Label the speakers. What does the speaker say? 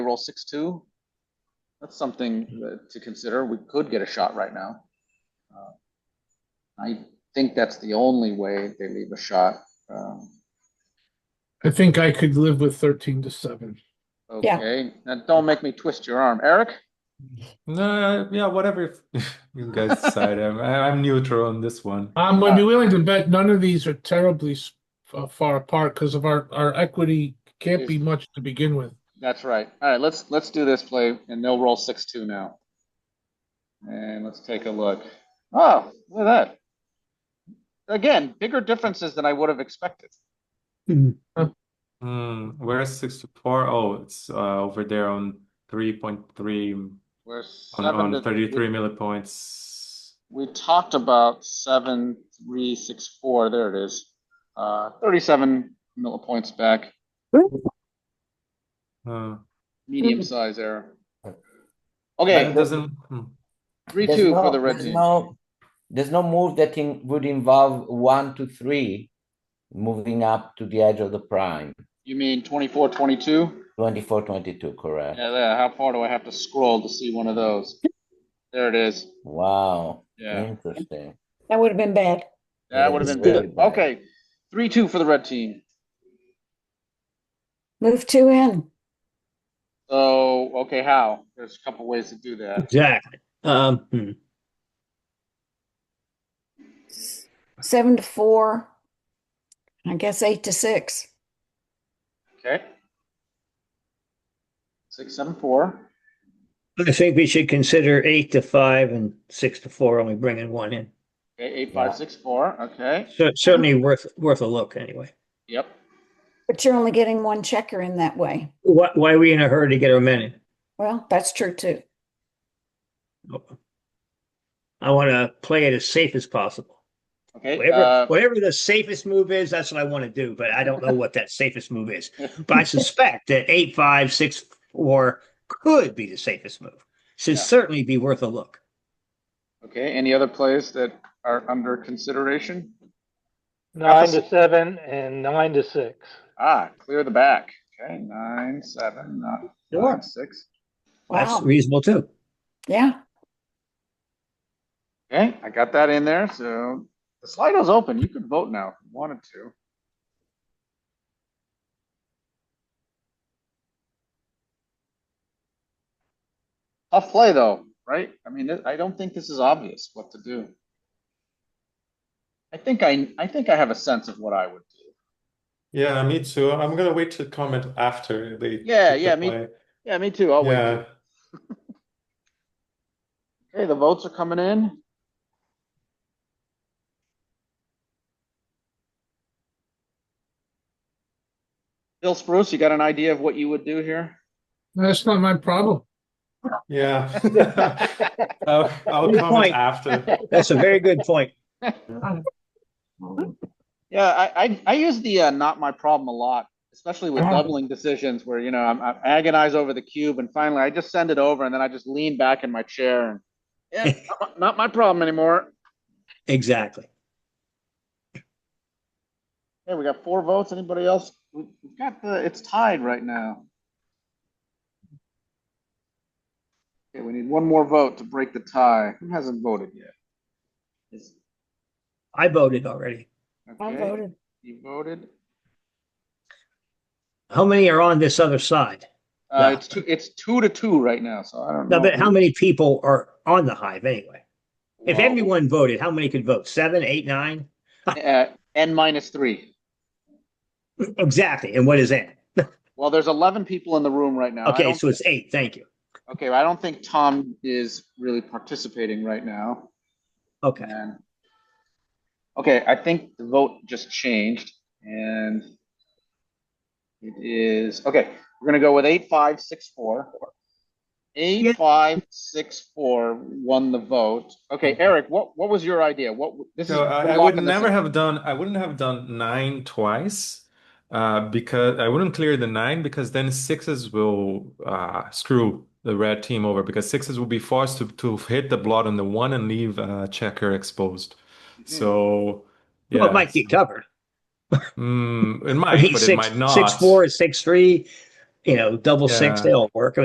Speaker 1: roll six, two. That's something uh, to consider. We could get a shot right now. Uh, I think that's the only way they leave a shot. Um,
Speaker 2: I think I could live with thirteen to seven.
Speaker 3: Yeah.
Speaker 1: Okay, now don't make me twist your arm. Eric?
Speaker 4: No, yeah, whatever you guys decide. I'm, I- I'm neutral on this one.
Speaker 2: I'm gonna Um, be willing to bet none of these are terribly s- uh, far apart because of our, our equity can't be much to begin with.
Speaker 1: That's right. All right, let's, let's do this play and they'll roll six, two now. And let's take a look. Oh, look at that. Again, bigger differences than I would have expected.
Speaker 4: Hmm, where's 64? Oh, it's uh, over there on 3.3 on,
Speaker 1: We're
Speaker 4: on
Speaker 1: seven to.
Speaker 4: 33 millipoints.
Speaker 1: We talked about seven, three, six, four, there it is. Uh, thirty-seven millipoints back,
Speaker 4: Uh,
Speaker 1: medium size error.
Speaker 5: Okay.
Speaker 4: but it
Speaker 1: Okay,
Speaker 4: doesn't. hmm.
Speaker 1: three,
Speaker 5: There's
Speaker 1: two for
Speaker 5: no-
Speaker 1: the red
Speaker 5: there's
Speaker 1: team.
Speaker 5: no- There's no move that in, would involve one to three, moving up to the edge of the prime,
Speaker 1: You mean twenty-four, twenty-two?
Speaker 5: twenty-four, twenty-two, correct?
Speaker 1: Yeah, there, how far do I have to scroll to see one of those? There it is,
Speaker 5: Wow,
Speaker 1: yeah,
Speaker 5: interesting.
Speaker 3: That would have been bad.
Speaker 1: that would have been
Speaker 5: Very
Speaker 1: good.
Speaker 5: bad.
Speaker 1: Okay, three, two for the red team.
Speaker 3: Move two in.
Speaker 1: So, okay, how? There's a couple ways to do that.
Speaker 6: Exactly. Um, hmm.
Speaker 3: Seven to four. I guess eight to six.
Speaker 1: Okay. Six, seven, four.
Speaker 6: I think we should consider eight to five and six to four, only bringing one in.
Speaker 1: Okay, eight, five,
Speaker 5: Yeah.
Speaker 1: six, four, okay,
Speaker 6: So certainly worth, worth a look anyway.
Speaker 1: yep.
Speaker 3: But you're only getting one checker in that way.
Speaker 6: Why, why are we in a hurry to get our men in?
Speaker 3: Well, that's true too.
Speaker 6: I want to play it as safe as possible.
Speaker 1: Okay,
Speaker 6: Whatever,
Speaker 1: uh,
Speaker 6: whatever the safest move is, that's what I want to do, but I don't know what that safest move is. But I suspect that eight, five, six, four could be the safest move. Should
Speaker 1: Yeah.
Speaker 6: certainly be worth a look.
Speaker 1: uh, okay, any other plays that are under consideration?
Speaker 7: Nine
Speaker 1: Opposite.
Speaker 7: to seven and nine to six.
Speaker 1: Ah, clear the back, okay, nine, seven, nine,
Speaker 6: Sure.
Speaker 1: nine, six.
Speaker 6: That's
Speaker 3: Wow.
Speaker 6: reasonable too.
Speaker 3: Yeah.
Speaker 1: Okay, I got that in there, so the Slido's open, you can vote now if you wanted to. Tough play though, right? I mean, I don't think this is obvious what to do. I think I, I think I have a sense of what I would do.
Speaker 4: Yeah, me too. I'm gonna wait to comment after they
Speaker 1: Yeah,
Speaker 4: pick the
Speaker 1: yeah, me-
Speaker 4: play.
Speaker 1: Yeah, me too, I'll wait.
Speaker 4: Yeah.
Speaker 1: Okay, the votes are coming in. Bill Spruce, you got an idea of what you would do here?
Speaker 2: That's not my problem.
Speaker 4: Yeah. I'll, I'll
Speaker 6: Good
Speaker 4: comment
Speaker 6: point.
Speaker 4: after.
Speaker 6: That's a very good point.
Speaker 1: Yeah, I, I, I use the, uh, not my problem a lot, especially with
Speaker 2: Yeah.
Speaker 1: leveling decisions where, you know, I'm, I agonize over the cube and finally I just send it over and then I just lean back in my chair and, yeah, not my- not my problem anymore.
Speaker 6: Exactly.
Speaker 1: Hey, we got four votes. Anybody else? We- We've got the, it's tied right now. Okay, we need one more vote to break the tie. Who hasn't voted yet? Is-
Speaker 6: I voted already.
Speaker 3: I
Speaker 1: okay,
Speaker 3: voted.
Speaker 1: You voted?
Speaker 6: How many are on this other side?
Speaker 1: Uh,
Speaker 6: Yeah.
Speaker 1: it's two, it's two to two right now, so I don't know.
Speaker 6: Now, but how
Speaker 1: who-
Speaker 6: many people are on the hive anyway? If
Speaker 1: Well,
Speaker 6: everyone voted, how many could vote? Seven, eight, nine?
Speaker 1: uh, N minus three.
Speaker 6: Exactly. And what is that?
Speaker 1: Well, there's eleven people in the room right now. I
Speaker 6: Okay,
Speaker 1: don't-
Speaker 6: so it's eight. Thank you.
Speaker 1: Okay, I don't think Tom is really participating right now.
Speaker 6: Okay.
Speaker 1: And okay, I think the vote just changed and it is okay. We're gonna go with eight five six four. Eight five six four won the vote. Okay, Eric, what what was your idea? What this is
Speaker 4: Mm-hmm. So uh, I,
Speaker 1: we're
Speaker 4: I would
Speaker 1: locking this
Speaker 4: never
Speaker 1: in.
Speaker 4: have done I wouldn't have done nine twice uh because I wouldn't clear the nine because then sixes will uh screw the red team over because sixes will be forced to to hit the blot on the one and leave uh checker exposed.
Speaker 6: Hmm.
Speaker 4: So
Speaker 6: Well,
Speaker 4: yeah.
Speaker 6: it might get covered.
Speaker 4: Mm, it
Speaker 6: But
Speaker 4: might,
Speaker 6: he's
Speaker 4: but it
Speaker 6: six,
Speaker 4: might not.
Speaker 6: six, four, six, three, you know, double six,
Speaker 4: Yeah.
Speaker 6: they all work.